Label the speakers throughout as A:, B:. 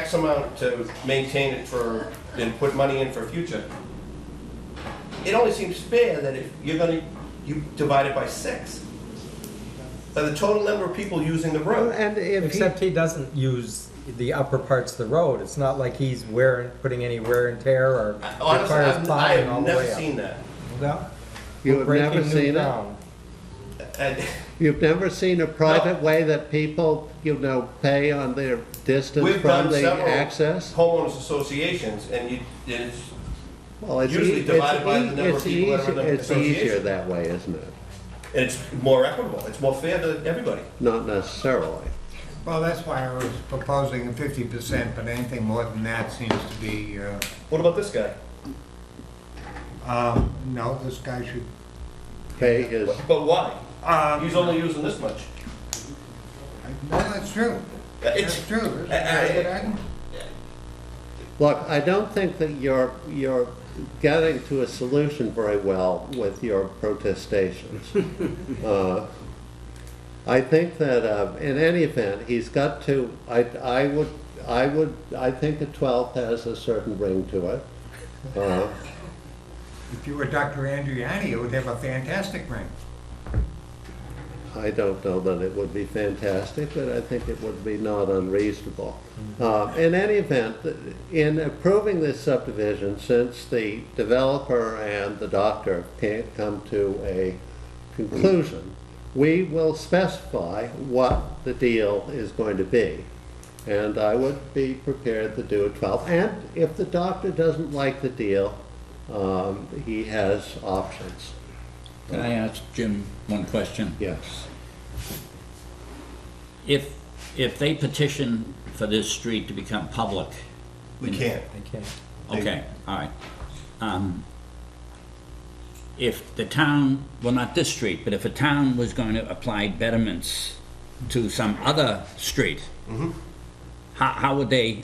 A: X amount to maintain it for, and put money in for future, it only seems fair that if you're gonna, you divide it by six. By the total number of people using the
B: Well,
A: road.
B: And if he,
C: Except he doesn't use the upper parts of the road. It's not like he's wearing, putting any wear and tear or
A: Honestly,
C: requires
A: I've- I
C: plowing all
A: have
C: the
A: never
C: way up.
A: seen that.
C: Well,
B: You
C: we're
B: have never
C: breaking new
B: seen it?
C: ground.
A: And-
B: you've never seen a private way that people, you know, pay on their distance
A: We've
B: from
A: done
B: the
A: several
B: access?
A: homeowners associations, and you, it's,
B: Well, it's
A: usually
B: ea- it's
A: divided by the
B: ea-
A: number of
B: it's
A: people that are in
B: easy-
A: the
B: It's easier
A: association.
B: that way, isn't it?
A: and it's more equitable, it's more fair to everybody.
B: Not necessarily.
D: Well, that's why I was proposing a fifty percent, but anything more than that seems to be, uh,
A: What about this guy?
D: um, no, this guy should,
B: Pay his,
A: But why?
D: um,
A: He's only using this much.
D: no, that's true.
A: It's,
D: That's true. That's
A: I- I-
D: a good item.
B: look, I don't think that you're, you're getting to a solution very well with your protestations. Uh, I think that, uh, in any event, he's got to, I, I would, I would, I think the twelfth has a certain ring to it. Uh,
D: If you were Dr. Andriani, it would have a fantastic ring.
B: I don't know that it would be fantastic, but I think it would be not unreasonable. Uh, In any event, th- in approving this subdivision, since the developer and the doctor can't come to a conclusion, we will specify what the deal is going to be. And I would be prepared to do a 12. And if the doctor doesn't like the deal, um, he has options.
E: Can I ask Jim one question?
B: Yes.
E: If, if they petition for this street to become public,
A: we can't.
C: I can't.
E: okay, all right. Um, If the town, well, not this street, but if a town was going to apply betterments to some other street,
A: Mm-hmm.
E: how, how would they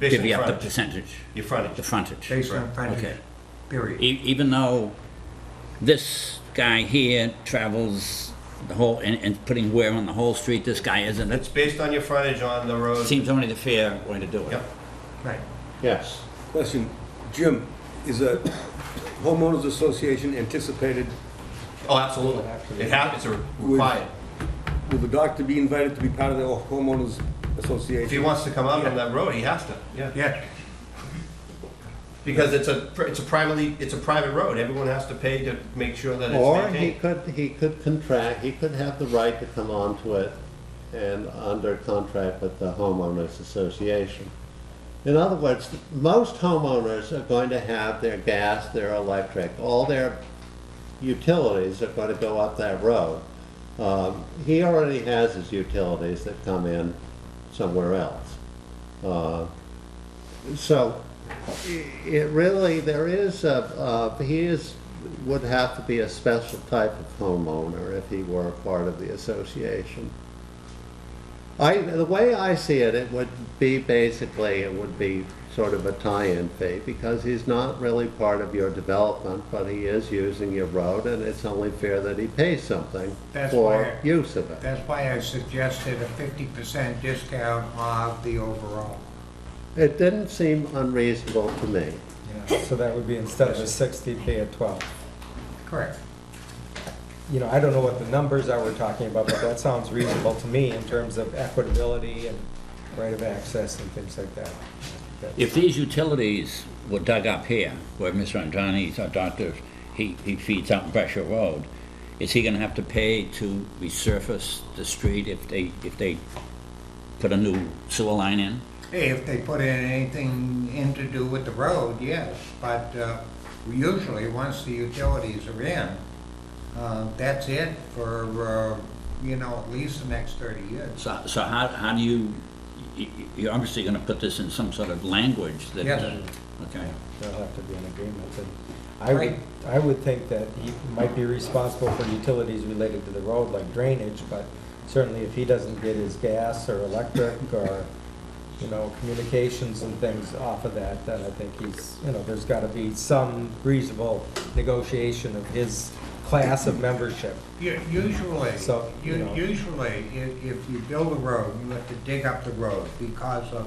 A: Based on
E: divvy up the
A: frontage.
E: percentage,
A: Your
E: the
A: frontage.
E: frontage?
D: Based on frontage,
E: Okay.
D: period.
E: E- even though this guy here travels the whole, and, and putting wear on the whole street, this guy isn't,
A: It's based on your frontage on the road.
E: Seems only the fair way to do it.
A: Yep.
D: Right.
B: Yes.
F: Question, Jim, is a homeowners association anticipated,
A: Oh, absolutely. It happens, it's required.
F: will the doctor be invited to be part of the homeowners
A: If he
F: association?
A: wants to come out on that road, he has to, yeah.
D: Yeah,
A: Because it's a, it's a privately, it's a private road. Everyone has to pay to make sure that it's
B: Or he
A: maintained.
B: could, he could contract, he could have the right to come onto it and under contract with the homeowners association. In other words, most homeowners are going to have their gas, their electric, all their utilities are going to go up that road. Um, He already has his utilities that come in somewhere else. Uh, So it really, there is a, uh, he is, would have to be a special type of homeowner if he were a part of the association. I, the way I see it, it would be basically, it would be sort of a tie-in fee, because he's not really part of your development, but he is using your road, and it's only fair that he pays something
D: That's
B: for
D: why-
B: use of it.
D: that's why I suggested a fifty percent discount of the overall.
B: It didn't seem unreasonable to me.
C: So that would be instead of a sixty, pay a twelve.
D: Correct.
C: You know, I don't know what the numbers are we're talking about, but that sounds reasonable to me in terms of equitability and right of access and things like that.
E: If these utilities were dug up here, where Mr. Andrani's our doctor, he, he feeds out in Brescia Road, is he gonna have to pay to resurface the street if they, if they put a new sewer line in?
D: Hey, if they put in anything in to do with the road, yes, but uh, usually, once the utilities are in, uh, that's it for, uh, you know, at least the next 30 years.
E: So, so how, how do you, y- y- you're obviously gonna put this in some sort of language that.
D: Yes.
E: Okay.
C: There'll have to be an agreement, and I would, I would think that he might be responsible for utilities related to the road, like drainage, but certainly if he doesn't get his gas or electric or, you know, communications and things off of that, then I think he's, you know, there's gotta be some reasonable negotiation of his class of membership.
D: U- Usually,
C: So, you
D: u-
C: know.
D: usually, i- if you build a road, you have to dig up the road because of